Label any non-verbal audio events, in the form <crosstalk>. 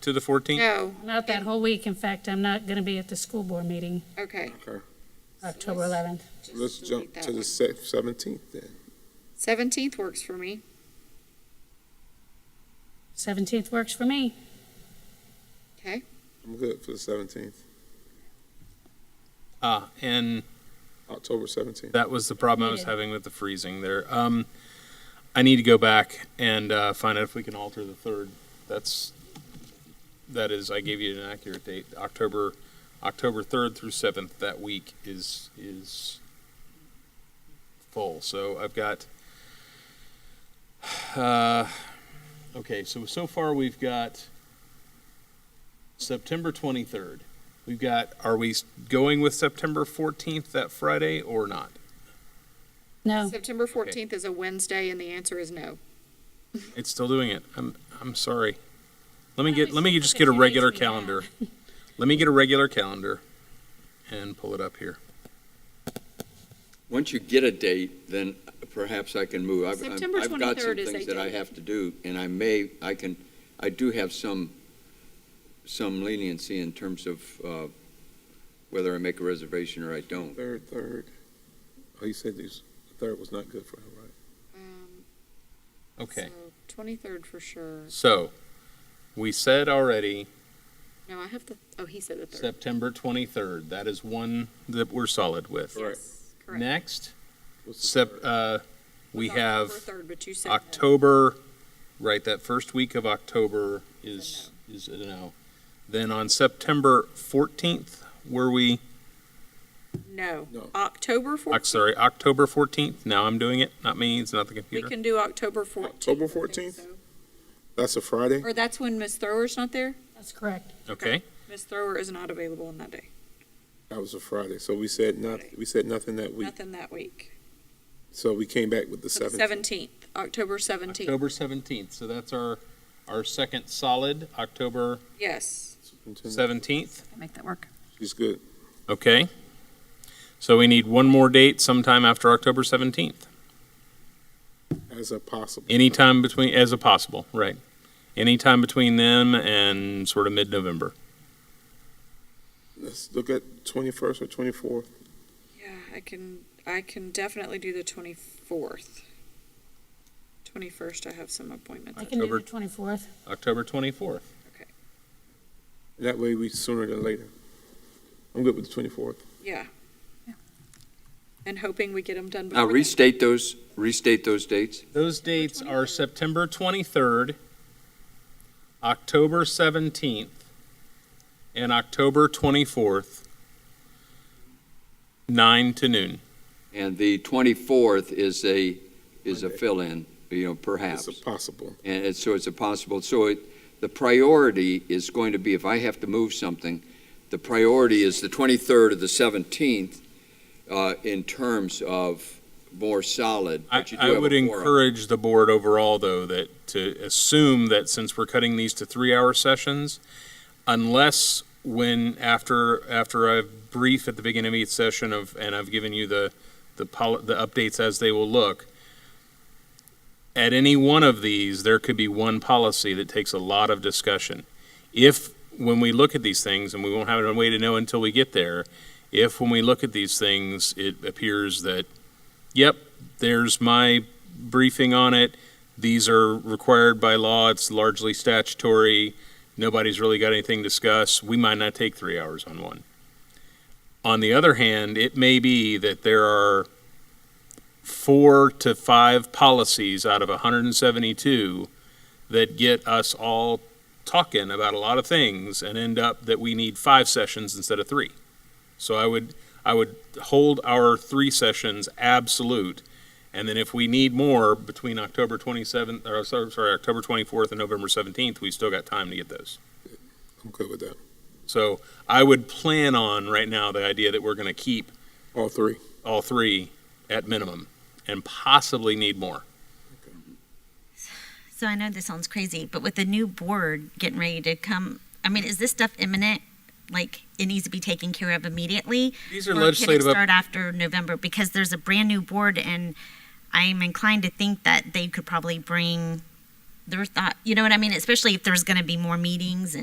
to the 14th? No, Not that whole week, in fact, I'm not gonna be at the school board meeting, Oh, okay. Okay, October eleventh. Just let's delete jump that to the one. se- 17th then. Seventeenth works for me. Seventeenth works for me. Okay, I'm good for the 17th, Ah, and October 17th. that was the problem I was having with the freezing there. Um, I need to go back and, uh, find out if we can alter the third. That's, that is, I gave you an accurate date, October, October 3rd through 7th, that week is, is full. So I've got, <sighs> uh, okay, so, so far we've got September 23rd. We've got, are we s- going with September 14th, that Friday, or not? Oh. No, September fourteenth is a Wednesday and the answer is no. It's still doing it. I'm I'm sorry. Let me get let me just get a regular calendar. Let me get a regular calendar and pull it up here. Once you get a date, then perhaps I can move. I've- I've- September I've got 23rd some is a things that I date. have to do, and I may, I can, I do have some, some leniency in terms of uh, whether I make a reservation or I don't. Third, third. Oh, you said these, the third was not good for him, right? Okay. Um, Twenty-third for sure. So we said already No, I have the, oh, he said the third. September 23rd. That is one that we're solid with. Correct. Yes, correct. Next, What's the sep, third? uh, we It was October have Third, but you said. no. October, right? That first week of October is is a no. Then on September 14th, were we? No, No. October Oc- fourteenth, sorry, October 14th. Now I'm doing it, not me, it's not the we computer. can do October fourteenth. October 14th? That's a Friday? Or that's when Ms. Thrower's not there? that's correct. Okay, Ms. Thrower is not available on that day, That was a Friday. So we said not, we said nothing that week. nothing that week. So we came back with the So the 17th. Seventeenth, October seventeenth, October 17th, so that's our, our second solid, October yes. Superintendent, 17th, Make that work. She's good. okay? So we need one more date sometime after October 17th, As a possible. anytime between, as a possible, right? Anytime between them and sort of mid-November. Let's look at 21st or 24th. Yeah, I can, I can definitely do the twenty-fourth. Twenty-first, I have some appointments. I can do October- the twenty-fourth. October 24th, That way we sooner than later. I'm good with the 24th. Yeah. And hoping we get them done before Now, then. restate those, restate those dates. Those dates are September 23rd, October 17th, and October 24th, 9 to noon. And the 24th is a, is a Monday. fill-in, you know, perhaps. It's a possible. And it's- so it's a possible, so it, the priority is going to be, if I have to move something, the priority is the 23rd or the 17th uh, in terms of more solid. I but you do I have a would quorum. encourage the board overall, though, that, to assume that since we're cutting these to three-hour sessions, unless when, after, after I brief at the beginning of each session of, and I've given you the, the poli, the updates as they will look, at any one of these, there could be one policy that takes a lot of discussion. If, when we look at these things, and we won't have a way to know until we get there, if when we look at these things, it appears that, yep, there's my briefing on it, these are required by law, it's largely statutory, nobody's really got anything to discuss, we might not take three hours on one. On the other hand, it may be that there are four to five policies out of 172 that get us all talking about a lot of things and end up that we need five sessions instead of three. So I would, I would hold our three sessions absolute. And then if we need more between October 27th, or sorry, sorry, October 24th and November 17th, we've still got time to get those. I'm good with that. So I would plan on right now the idea that we're going to keep All three. all three at minimum and possibly need more. So I know this sounds crazy, but with the new board getting ready to come, I mean, is this stuff imminent? Like it needs to be taken care of immediately? These are or can it legislative. up- start after November? Because there's a brand new board and I'm inclined to think that they could probably bring their thought, you know what I mean? Especially if there's gonna be more meetings and.